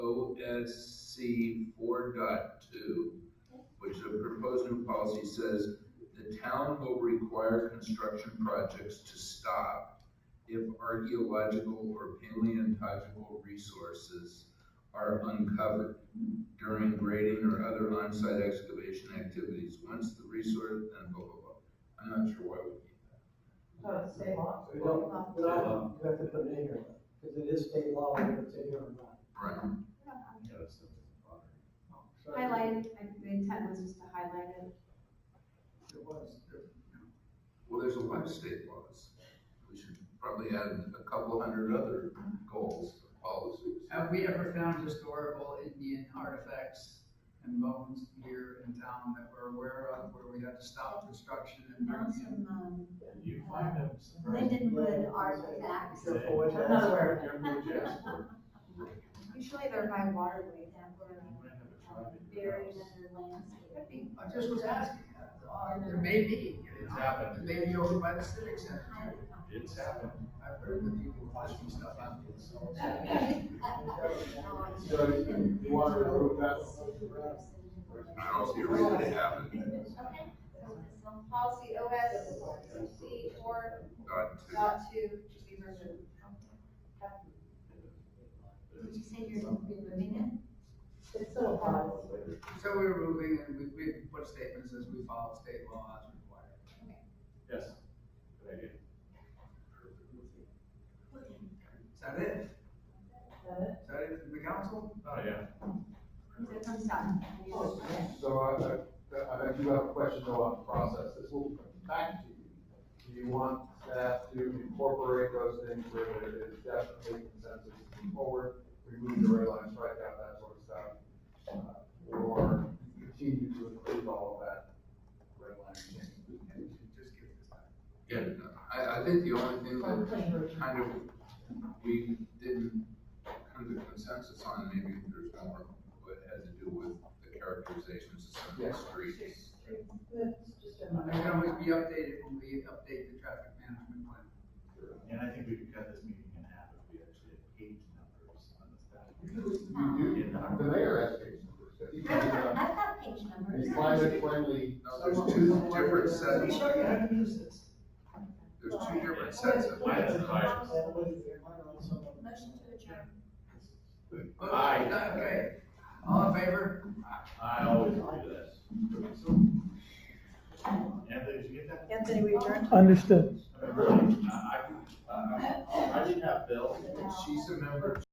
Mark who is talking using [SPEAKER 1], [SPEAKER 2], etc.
[SPEAKER 1] NSC four dot two, which the proposed new policy says, the town will require construction projects to stop if archaeological or paleontological resources are uncovered during grading or other on-site excavation activities, once the resource, and blah, blah, blah. I'm not sure why we need that.
[SPEAKER 2] Uh, state law.
[SPEAKER 3] Well, no, you have to put it in here, because it is state law whether it's in here or not.
[SPEAKER 1] Right,
[SPEAKER 3] So-
[SPEAKER 4] Highlighted, I- the intent was just to highlight it.
[SPEAKER 3] It was.
[SPEAKER 1] well, there's a lot of state laws. We should probably add a couple hundred other goals, policies.
[SPEAKER 5] Have we ever found historical Indian artifacts and bones here in town that we're aware of, where we had to stop construction and bring
[SPEAKER 6] Found
[SPEAKER 5] them?
[SPEAKER 6] some, um,
[SPEAKER 7] You find them
[SPEAKER 6] Lindenwood artifacts
[SPEAKER 3] Be Careful what you ask
[SPEAKER 2] Another
[SPEAKER 3] for.
[SPEAKER 2] word.
[SPEAKER 4] Usually they're by waterways.
[SPEAKER 6] that were buried under landscape.
[SPEAKER 5] Could be. I just was asking, uh, there may be, you
[SPEAKER 7] It's
[SPEAKER 5] know,
[SPEAKER 7] happened.
[SPEAKER 5] maybe over by the civic center.
[SPEAKER 7] It's happened.
[SPEAKER 5] I've heard that people watching stuff out there, so.
[SPEAKER 3] So you want to approve that?
[SPEAKER 1] I don't see a reason to have it,
[SPEAKER 4] Okay. So Policy OSC four
[SPEAKER 1] dot two.
[SPEAKER 4] dot two, just be removed.
[SPEAKER 6] Did you say you're removing
[SPEAKER 2] It's still a policy.
[SPEAKER 5] So we're moving and we, we put statements as we follow state law as required.
[SPEAKER 7] Yes.
[SPEAKER 5] Is that it?
[SPEAKER 2] Is
[SPEAKER 5] Is that it from the council?
[SPEAKER 7] Oh, yeah.
[SPEAKER 4] So it comes down.
[SPEAKER 8] So I- I, I do have a question though on process, this will come back to you. Do you want staff to incorporate those things where it is definitely consensus to move forward, remove the red line, strike out that sort of stuff? uh, Or continue to include all of that red line change?
[SPEAKER 5] Just give this back.
[SPEAKER 1] Yeah, no, I, I think the only thing
[SPEAKER 2] On
[SPEAKER 1] that
[SPEAKER 2] plain version.
[SPEAKER 1] kind of, we didn't come to consensus on, maybe there's more, but had to do with the characterizations of some of the streets.
[SPEAKER 2] That's just a
[SPEAKER 5] It can always be updated when we update the traffic management plan.
[SPEAKER 7] And I think we could cut this meeting in half if we actually had page numbers on the staff.
[SPEAKER 8] You do, the mayor has page numbers, if you
[SPEAKER 6] it? I've
[SPEAKER 8] can,
[SPEAKER 6] got,
[SPEAKER 8] uh,
[SPEAKER 6] I've got page numbers.
[SPEAKER 8] be climate friendly.
[SPEAKER 1] No, there's two different
[SPEAKER 3] Let me
[SPEAKER 1] sets,
[SPEAKER 3] show you how to use this.
[SPEAKER 1] there's two different sets of.
[SPEAKER 7] Why is it higher?
[SPEAKER 6] Motion to adjourn.
[SPEAKER 7] Aye.
[SPEAKER 5] Okay, all in favor?
[SPEAKER 7] I always do this. Anthony, did you get that?
[SPEAKER 2] Anthony, we adjourn.
[SPEAKER 9] Understood.
[SPEAKER 7] I, I, I didn't have Bill.
[SPEAKER 1] She's a member